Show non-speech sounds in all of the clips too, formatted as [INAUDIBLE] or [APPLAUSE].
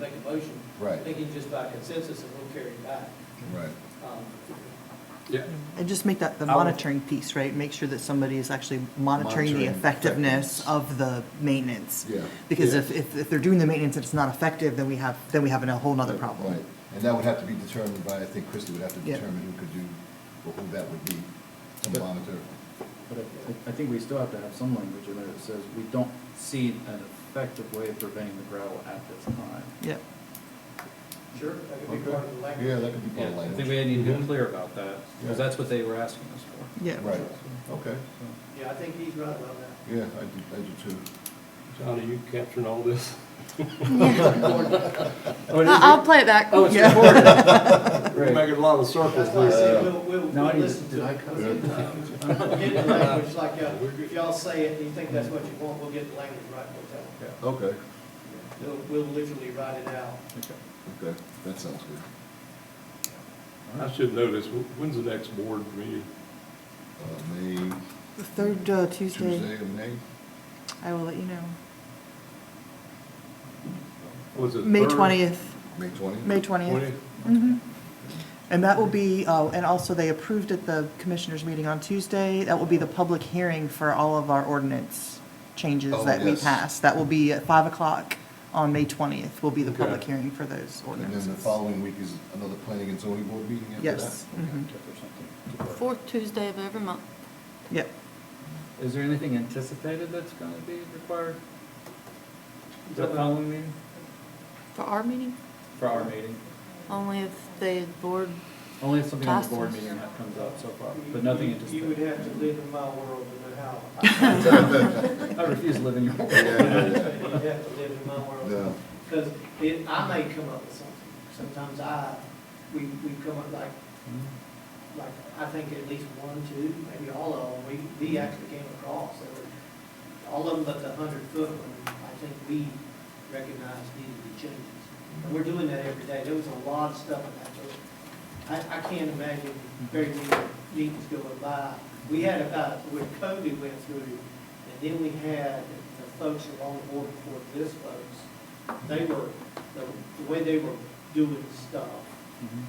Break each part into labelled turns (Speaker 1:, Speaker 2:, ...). Speaker 1: a motion.
Speaker 2: Right.
Speaker 1: They can just by consensus and we'll carry it back.
Speaker 2: Right.
Speaker 1: Um,
Speaker 3: Yeah,
Speaker 4: And just make that the
Speaker 2: I would-
Speaker 4: monitoring piece, right? Make sure that somebody is actually monitoring the
Speaker 2: Monitoring
Speaker 4: effectiveness
Speaker 2: effectiveness.
Speaker 4: of the maintenance.
Speaker 2: Yeah.
Speaker 4: Because
Speaker 3: Yeah.
Speaker 4: if, if, if they're doing the maintenance and it's not effective, then we have, then we have a whole nother problem.
Speaker 2: Right, and that would have to be determined by, I think Christie would have to
Speaker 4: Yeah.
Speaker 2: determine who could do, or who that would be to
Speaker 5: But-
Speaker 2: monitor.
Speaker 5: But I, I think we still have to have some language in there that says we don't see an effective way of preventing the gravel at this time.
Speaker 4: Yep.
Speaker 1: Sure, that could be part of the language.
Speaker 2: Yeah, that could be part
Speaker 5: Yeah,
Speaker 2: of the
Speaker 5: I
Speaker 2: language.
Speaker 5: think we need to be clear about that,
Speaker 2: Yeah.
Speaker 5: because that's what they were asking us for.
Speaker 4: Yeah.
Speaker 2: Right, okay,
Speaker 5: So,
Speaker 1: Yeah, I think he's right about that.
Speaker 2: yeah, I do, I do too.
Speaker 3: John, are you capturing all this?
Speaker 4: [LAUGHS]
Speaker 3: Oh, it is-
Speaker 6: I'll play it back.
Speaker 3: Oh, it's
Speaker 4: Yeah.
Speaker 3: recorded. We're
Speaker 5: Right.
Speaker 3: making a lot of circles
Speaker 1: That's why I
Speaker 3: here.
Speaker 2: uh,
Speaker 1: said, we'll, we'll,
Speaker 5: Now
Speaker 1: we'll
Speaker 5: I need to-
Speaker 1: listen
Speaker 5: did
Speaker 1: to
Speaker 5: I
Speaker 1: it.
Speaker 5: cut
Speaker 1: We'll Get
Speaker 5: [LAUGHS]
Speaker 1: the language, like, uh, if y'all say it, and you think that's what you want, we'll get the language right, we'll tell them.
Speaker 5: yeah,
Speaker 2: Okay,
Speaker 1: We'll, we'll literally write it out.
Speaker 5: okay.
Speaker 2: okay, that sounds good.
Speaker 3: I should know this, Wh- when's the next board meeting?
Speaker 2: Uh, May,
Speaker 4: The [LAUGHS] third uh,
Speaker 2: Tuesday
Speaker 4: Tuesday,
Speaker 2: of May?
Speaker 4: I will let you know.
Speaker 3: Was it
Speaker 4: May
Speaker 3: third?
Speaker 4: twentieth,
Speaker 2: May twentieth?
Speaker 4: May twentieth.
Speaker 3: 20th?
Speaker 4: Mhm. And that will be, oh, and also they approved at the commissioners meeting on Tuesday, that will be the public hearing for all of our ordinance changes
Speaker 2: Oh,
Speaker 4: that we
Speaker 2: yes.
Speaker 4: passed. That will be at five o'clock on May twentieth, will be the
Speaker 3: Okay.
Speaker 4: public hearing for those
Speaker 2: And then
Speaker 4: ordinances.
Speaker 2: the following week is another planning and zoning board meeting after that?
Speaker 4: Yes.
Speaker 5: Okay,
Speaker 4: Mhm.
Speaker 5: check or something to work.
Speaker 6: Fourth Tuesday of every month.
Speaker 4: Yep,
Speaker 5: Is there anything anticipated that's gonna be required?
Speaker 1: You
Speaker 5: The
Speaker 1: talking about-
Speaker 5: following meeting,
Speaker 6: For our meeting,
Speaker 5: for our meeting?
Speaker 6: only if the board,
Speaker 5: Only if something on the board
Speaker 6: Taskers.
Speaker 5: meeting that comes up so far,
Speaker 1: You-
Speaker 5: but nothing
Speaker 1: you- You would
Speaker 5: anticipated.
Speaker 1: have to live in my world to know how.
Speaker 2: [LAUGHS]
Speaker 5: I refuse to live in your world.
Speaker 2: Yeah, yeah,
Speaker 1: You'd have to live in my
Speaker 2: yeah.
Speaker 1: world.
Speaker 2: No,
Speaker 1: Because it, I may come up with something. Sometimes I, we, we come up like,
Speaker 5: Mm-hmm.
Speaker 1: like, I think at least one, two, maybe all of them, we, we actually came across. There were- All of them but the hundred foot one, I think we recognized needed to be changes. And we're doing that every day. There was a lot of stuff in that book. I, I can't imagine very many meetings going by. We had about, when COVID went through, and then we had the folks along the board before this folks, they were, the, the way they were doing stuff,
Speaker 5: Mhm.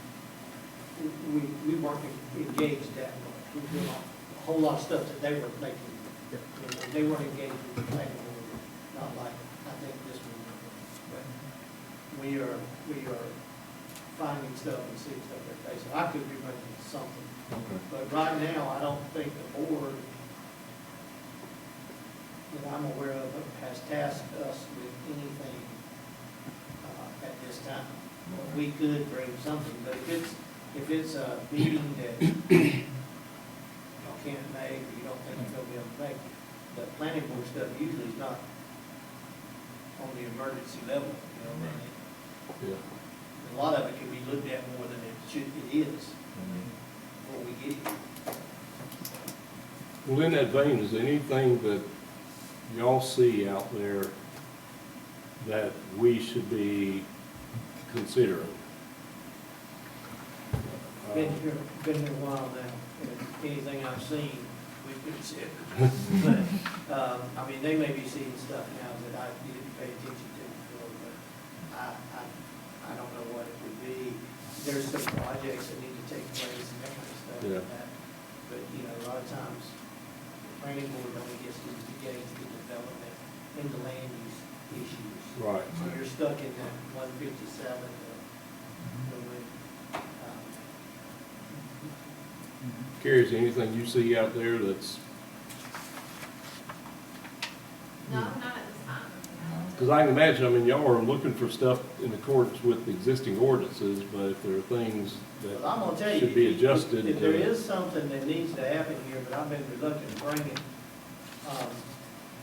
Speaker 1: we, we weren't engaged that much. We were doing a whole lot of stuff that they were making,
Speaker 5: Yeah.
Speaker 1: you know, they weren't engaged with the planning board, not like, I think this one. But we are, we are finding stuff and seeing stuff they're facing. I could be making something,
Speaker 2: okay.
Speaker 1: but right now, I don't think the board that I'm aware of has tasked us with anything uh, at this time. We could bring something, but if it's, if it's a meeting that y'all can't make, or you don't think you're gonna be able to make, the planning board stuff usually is not on the emergency level, you know, what I mean?
Speaker 3: Yeah.
Speaker 1: a lot of it can be looked at more than it should, it is, before we get here.
Speaker 3: Well, in that vein, is there anything that y'all see out there that we should be considering?
Speaker 1: Been here, been here a while now, and anything I've seen, we've
Speaker 3: [LAUGHS]
Speaker 1: considered. But, um, I mean, they may be seeing stuff now that I didn't pay attention to before, but I, I, I don't know what it would be. There's some projects that need to take place and that kind of stuff
Speaker 3: Yeah.
Speaker 1: like that. But, you know, a lot of times, the planning board only gets to engage in development in the land use issues.
Speaker 3: Right.
Speaker 1: So you're stuck in that one fifty-seven, the, the, way, um,
Speaker 5: Mm-hmm.
Speaker 3: Carrie, is there anything you see out there that's,
Speaker 7: No, not at this time.
Speaker 3: because I can imagine, I mean, y'all are looking for stuff in accordance with existing ordinances, but if there are things
Speaker 1: Well, I'm gonna tell
Speaker 3: that
Speaker 1: you.
Speaker 3: should be
Speaker 1: if-
Speaker 3: adjusted.
Speaker 1: If there
Speaker 3: to-
Speaker 1: is something that needs to happen here, but I've been reluctant to bring it, um,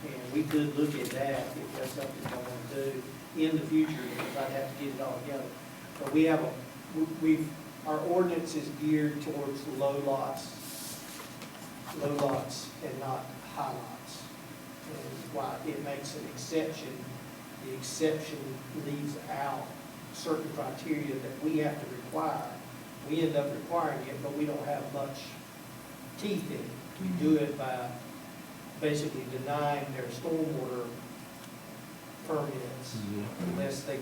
Speaker 1: and we could look at that if that's something I want to do in the future, because I'd have to get it all together. But we have, a we- we've, our ordinance is geared towards low lots, low lots and not high lots. And why it makes an exception, the exception leaves out certain criteria that we have to require. We end up requiring it, but we don't have much teeth in it. We do it by basically denying their stormwater permits
Speaker 3: Mhm.
Speaker 1: unless they